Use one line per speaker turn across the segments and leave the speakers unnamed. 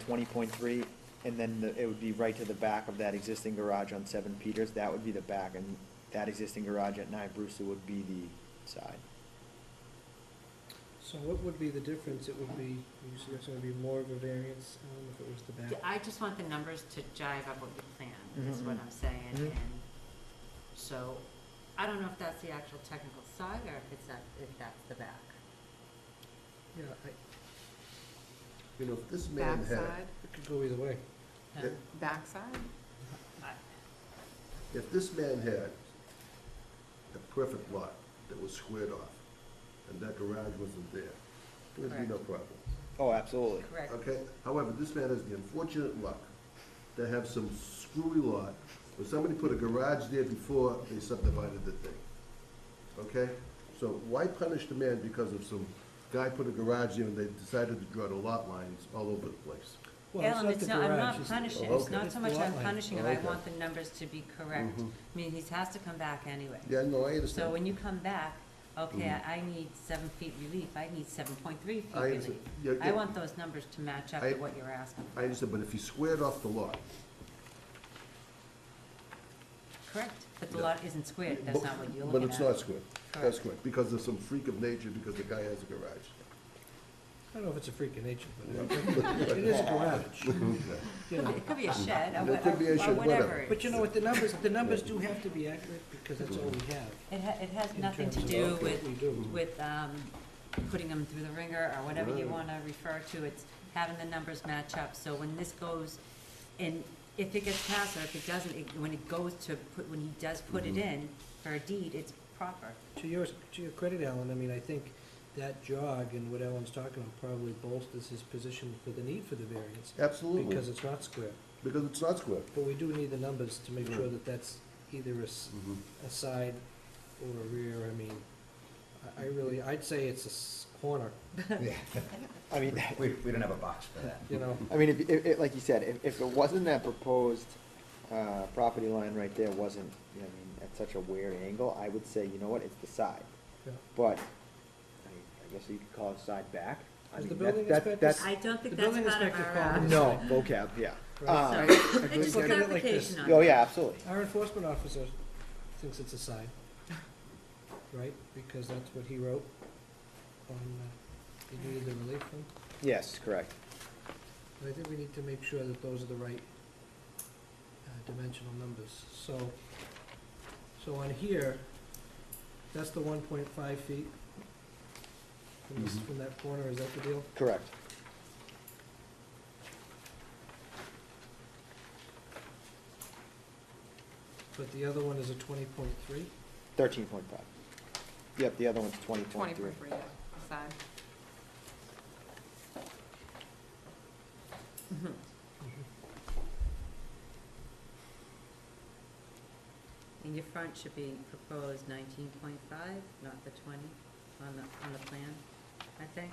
twenty point three, and then the- it would be right to the back of that existing garage on Seven Peters, that would be the back, and that existing garage at Nine Brewster would be the side.
So what would be the difference? It would be, you said it's gonna be more of a variance, um, if it was the
D-
back.
I just want the numbers to jive up with the plan,
Mm-hmm.
is what
Mhm,
I'm saying,
mhm.
and so, I don't know if that's the actual technical side, or if it's that, if that's the back.
Yeah, I,
You know, if this man had,
Backside,
it could go either way.
No?
Yeah.
backside?
if this man had a perfect lot that was squared off, and that garage wasn't there, there would be no problem.
Oh, absolutely.
Correct,
Okay, however, this man has the unfortunate luck to have some screwy lot, where somebody put a garage there before they subdivided the thing. Okay, so why punish the man because of some guy put a garage there and they decided to draw the lot lines all over the place?
Well,
Alan,
not
it's
the
not, I'm
garage,
not
it's-
punishing,
Oh,
it's
okay. Oh,
not
It's
so
the
much
lot
I'm
line.
punishing him, I
Okay.
want the numbers to be correct.
Mhm.
I mean, he has to come back anyway.
Yeah, no, I
So
understand.
when you come back, okay,
Mhm.
I I need seven feet relief, I need seven point three feet
I
relief.
understand. Yeah,
I
yeah.
want those numbers to match up
I-
to what you're asking.
I understand, but if you squared off the lot,
Correct, but the
Yeah.
lot isn't squared, that's not what you're
But
looking
it's
at.
not square, that's
Correct.
square, because of some freak of nature, because the guy has a garage.
I don't know if it's a freak of nature,
Yeah.
but it it is a garage,
Okay.
you know.
It could be a shed, or
It
what-
could be a
or
shed,
whatever.
whatever.
it
But you
is.
know what, the numbers, the numbers do have to be accurate, because that's all we have.
It ha, it has
in
nothing to
terms of
do
what
with,
we do.
with, um, putting them through the ringer, or whatever you
Right.
wanna refer to, it's having the numbers match up, so when this goes, and if it gets passed, or if it doesn't, it, when it goes to, put, when he does put it
Mhm.
in for a deed, it's proper.
To yours, to your credit, Alan, I mean, I think that jog and what Alan's talking about probably bolsters his position for the need for the variance,
Absolutely,
because it's not square.
because it's not square.
But we do need the numbers to make sure
Right.
that that's either a, s- a side or a rear, I mean, I, I really, I'd say it's a s- corner,
Yeah,
I mean,
we, we don't have a box for that.
you know?
I mean, if, if, if- like you said, if, if it wasn't that proposed, uh, property line right there wasn't, I mean, at such a weird angle, I would say, you know what, it's the side.
Yeah.
But, I, I guess you could call it side back. I
Is the
mean,
building
that- that-
inspector-
that's-
I don't
The
think that's
building
part of
inspector
our, uh,
called
so,
No, vocab, yeah. Uh,
Right.
it's just
Look at it like
clarification
this.
on
oh,
it.
yeah, absolutely.
Our enforcement officer thinks it's a side, right, because that's what he wrote on, uh, he needed the relief from.
Yes, correct.
But I think we need to make sure that those are the right uh, dimensional numbers. So, so on here, that's the one point five feet from this,
Mm-hmm.
Mhm.
from that corner, is that the deal?
Correct.
But the other one is a twenty point three?
Thirteen point five. Yep, the other one's twenty
Twenty
point three.
point three, yeah, side.
Mhm.
Mm-hmm.
And your front should be proposed nineteen point five, not the twenty on the, on the plan, I think.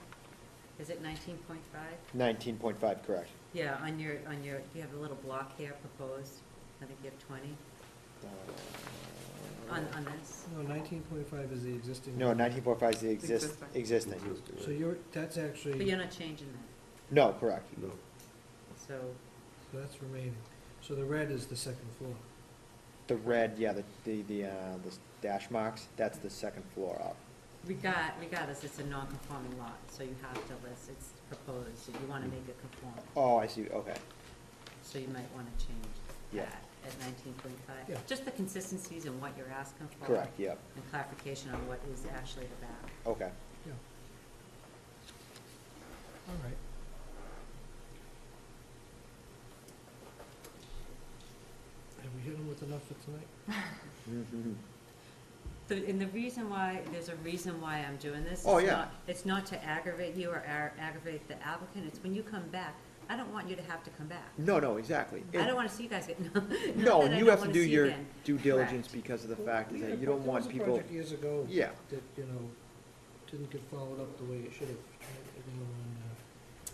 Is it nineteen point five?
Nineteen point five, correct.
Yeah, on your, on your, you have a little block here proposed, I think you have twenty
Uh,
on, on this.
No, nineteen point five is the existing.
No, nineteen point five is the exist,
Existing.
existing.
So you're, that's
But
actually,
you're not changing that,
No, correct.
No,
so,
so that's remaining. So the red is the second floor.
The red, yeah, the, the, the, uh, the dash marks, that's the second floor up.
regard, regardless, it's a non-conforming lot, so you have to list, it's proposed, you wanna make it conform.
Oh, I see, okay.
So you might wanna change
Yeah.
that at nineteen point
Yeah.
five. Just the consistencies and what you're asking for.
Correct, yep,
And clarification on what is actually the back.
okay.
Yeah. All right. Have we hit them with enough for tonight?
Mhm.
The- And the reason why, there's a reason why I'm doing this.
Oh,
It's
yeah.
not- It's not to aggravate you or ar- aggravate the applicant, it's when you come back, I don't want you to have to come back.
No, no, exactly.
I
And-
don't wanna see you guys get, no, not
No,
that I
you
don't
have to
wanna
do
see
your
again.
due diligence
Correct.
because of the fact is
Yeah,
that you
but
don't want
There
people,
was a project years ago.
yeah,
That, you know, didn't get followed up the way it should have. You know, and, uh,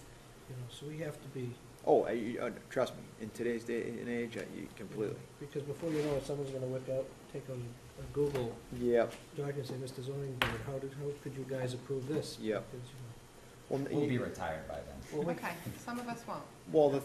you know, so we have to be. you know,
oh, uh, you- uh, trust me, in today's day and age, uh, you completely.
Because before you know it, someone's gonna whip out, take on a Google
Yep,
document and say, Mr. Zoning Board, how did, how could you guys approve this?
Yep.
Because, you know,
Well, n-
We'll
you-
be retired by then.
well, we-
Okay, some of us won't.
Well, the